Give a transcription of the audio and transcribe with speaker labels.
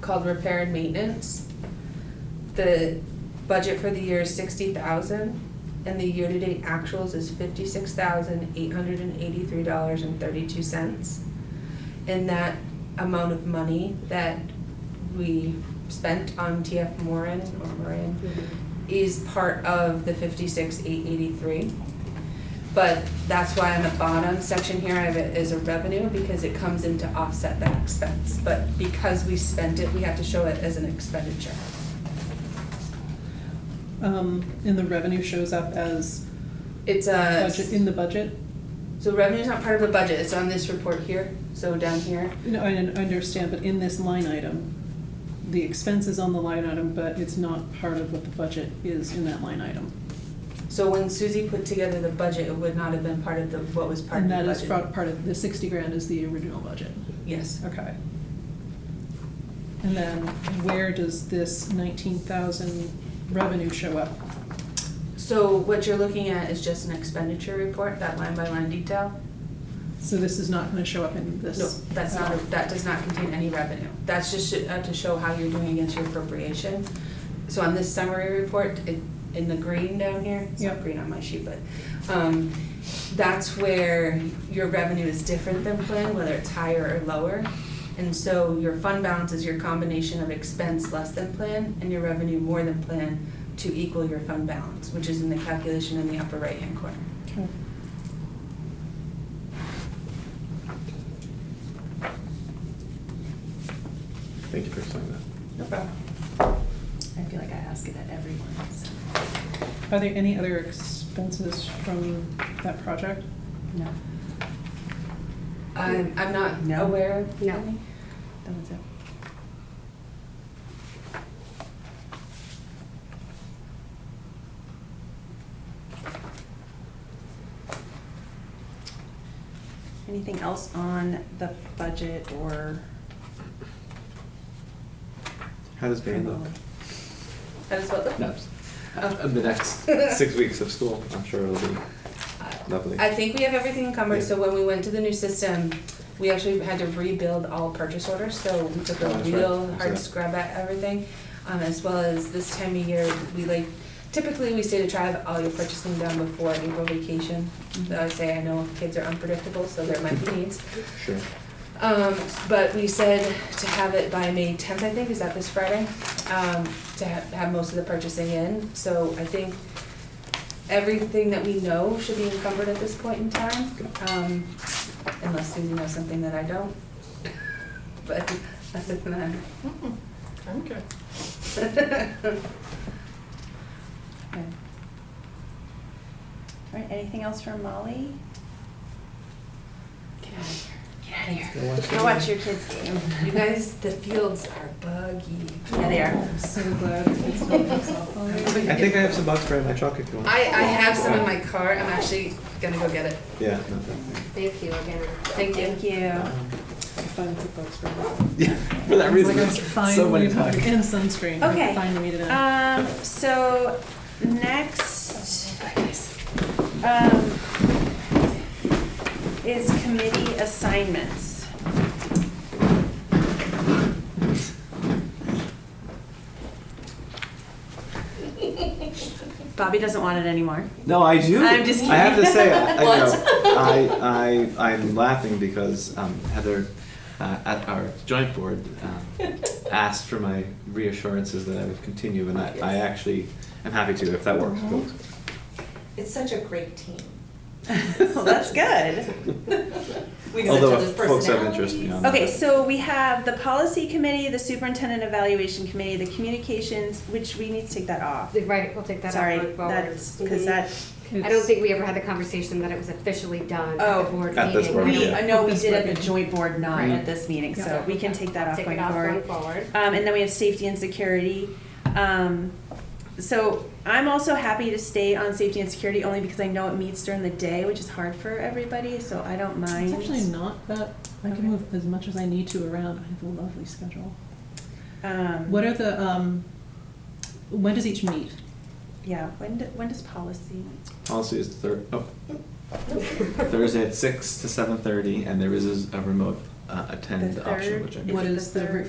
Speaker 1: called repair and maintenance. The budget for the year is sixty thousand, and the year-to-date actuals is fifty-six thousand, eight hundred and eighty-three dollars and thirty-two cents. And that amount of money that we spent on TF Moran or Moran is part of the fifty-six, eight eighty-three. But that's why on the bottom section here, I have it as a revenue because it comes in to offset that expense. But because we spent it, we have to show it as an expenditure.
Speaker 2: Um, and the revenue shows up as
Speaker 1: It's a,
Speaker 2: budget, in the budget?
Speaker 1: so revenue's not part of the budget, it's on this report here, so down here.
Speaker 2: No, I didn't understand, but in this line item, the expense is on the line item, but it's not part of what the budget is in that line item.
Speaker 1: So when Susie put together the budget, it would not have been part of the, what was part of
Speaker 2: And
Speaker 1: the budget.
Speaker 2: that is fro- part of, the sixty grand is the original budget.
Speaker 1: Yes,
Speaker 2: Okay. And then where does this nineteen thousand revenue show up?
Speaker 1: so what you're looking at is just an expenditure report, that line by line detail.
Speaker 2: So this is not gonna show up in this?
Speaker 1: No, that's not, a- that does not contain any revenue. That's just sh- uh, to show how you're doing against your appropriation. So on this summary report, it, in the green down here, it's not
Speaker 2: Yep.
Speaker 1: green on my sheet, but, um, that's where your revenue is different than plan, whether it's higher or lower. And so your fund balance is your combination of expense less than plan and your revenue more than plan to equal your fund balance, which is in the calculation in the upper right-hand corner.
Speaker 2: Okay.
Speaker 3: Thank you for explaining that.
Speaker 1: No problem.
Speaker 4: I feel like I ask it at every one, so.
Speaker 2: Are there any other expenses from that project?
Speaker 4: No.
Speaker 1: I'm, I'm not
Speaker 4: No.
Speaker 1: aware of
Speaker 4: No.
Speaker 1: any.
Speaker 4: That one's up. Anything else on the budget or?
Speaker 3: How does Van look?
Speaker 1: That's what the- Oh.
Speaker 3: No, uh, The next six weeks of school, I'm sure it'll be lovely.
Speaker 1: I think we have everything encumbered, so
Speaker 3: Yeah.
Speaker 1: when we went to the new system, we actually had to rebuild all purchase orders, so we took
Speaker 3: Oh,
Speaker 1: a
Speaker 3: that's right.
Speaker 1: real
Speaker 3: I saw
Speaker 1: hard
Speaker 3: that.
Speaker 1: scrub at everything. Um, as well as this time of year, we like, typically we say to try to have all your purchasing done before April vacation. Though I say I know kids are unpredictable, so there might be needs.
Speaker 3: Sure.
Speaker 1: Um, but we said to have it by May tenth, I think, is that this Friday? Um, to have, have most of the purchasing in, so I think everything that we know should be encumbered at this point in time. Um, unless Susie knows something that I don't. But other than that. I'm good.
Speaker 4: Okay. All right, anything else from Molly?
Speaker 1: Get out of here, get out of here.
Speaker 4: Go watch your kids' game.
Speaker 1: You guys, the fields are buggy.
Speaker 4: Yeah, they are.
Speaker 2: I'm so glad it's not softball.
Speaker 3: I think I have some box bread in my truck if you want.
Speaker 1: I, I have some in my car, I'm actually gonna go get it.
Speaker 3: Yeah. not that thing.
Speaker 5: Thank you again.
Speaker 1: Thank you.
Speaker 4: Thank you.
Speaker 1: Oh.
Speaker 3: Um,
Speaker 2: I finally put bugs for it.
Speaker 3: Yeah, for that reason,
Speaker 2: It's
Speaker 3: there's
Speaker 2: like I
Speaker 3: so
Speaker 2: finally
Speaker 3: many
Speaker 2: put-
Speaker 3: times.
Speaker 2: And sunscreen, Uh, I
Speaker 4: Okay.
Speaker 2: finally made it in.
Speaker 4: Um, so next, um, is committee assignments. Bobby doesn't want it anymore.
Speaker 3: No, I do.
Speaker 4: I'm just
Speaker 3: I have to
Speaker 4: kidding.
Speaker 3: say, I, I
Speaker 4: What?
Speaker 3: know. I, I, I'm laughing because um, Heather uh, at our joint board um, asked for my reassurances that I would continue, and I, I actually am happy to if that
Speaker 1: Mm-hmm.
Speaker 3: works.
Speaker 4: Mhm.
Speaker 5: It's such a great team.
Speaker 4: Well, Oh, that's good.
Speaker 5: We have
Speaker 3: Although
Speaker 5: such
Speaker 3: if
Speaker 5: other
Speaker 3: folks have interest
Speaker 5: personalities.
Speaker 3: beyond that.
Speaker 4: Okay, so we have the policy committee, the superintendent evaluation committee, the communications, which we need to take that off.
Speaker 5: Right, we'll take that up
Speaker 4: Sorry,
Speaker 5: going forward.
Speaker 4: that's, cause that,
Speaker 5: I don't think we ever had the conversation that it was officially done at
Speaker 4: Oh.
Speaker 5: the board meeting.
Speaker 3: At this board,
Speaker 5: We
Speaker 4: we,
Speaker 3: yeah.
Speaker 4: I know we did at the joint board, not at this meeting, so
Speaker 5: Right.
Speaker 4: we can take that off
Speaker 5: Take
Speaker 4: going
Speaker 5: it off
Speaker 4: forward.
Speaker 5: going forward.
Speaker 4: Um, and then we have safety and security. Um, so I'm also happy to stay on safety and security only because I know it meets during the day, which is hard for everybody, so I don't mind.
Speaker 2: It's actually not that, I
Speaker 4: Okay.
Speaker 2: can move as much as I need to around, I have a lovely schedule.
Speaker 4: Um,
Speaker 2: What are the, um, when does each meet?
Speaker 4: Yeah, when, do- when does policy?
Speaker 3: Policy is thir- oh. Thursday at six to seven thirty, and there is a remote uh, attend
Speaker 4: The
Speaker 3: option,
Speaker 4: third
Speaker 3: which I.
Speaker 4: Is
Speaker 2: What
Speaker 4: it
Speaker 2: is
Speaker 4: the
Speaker 2: the
Speaker 4: third?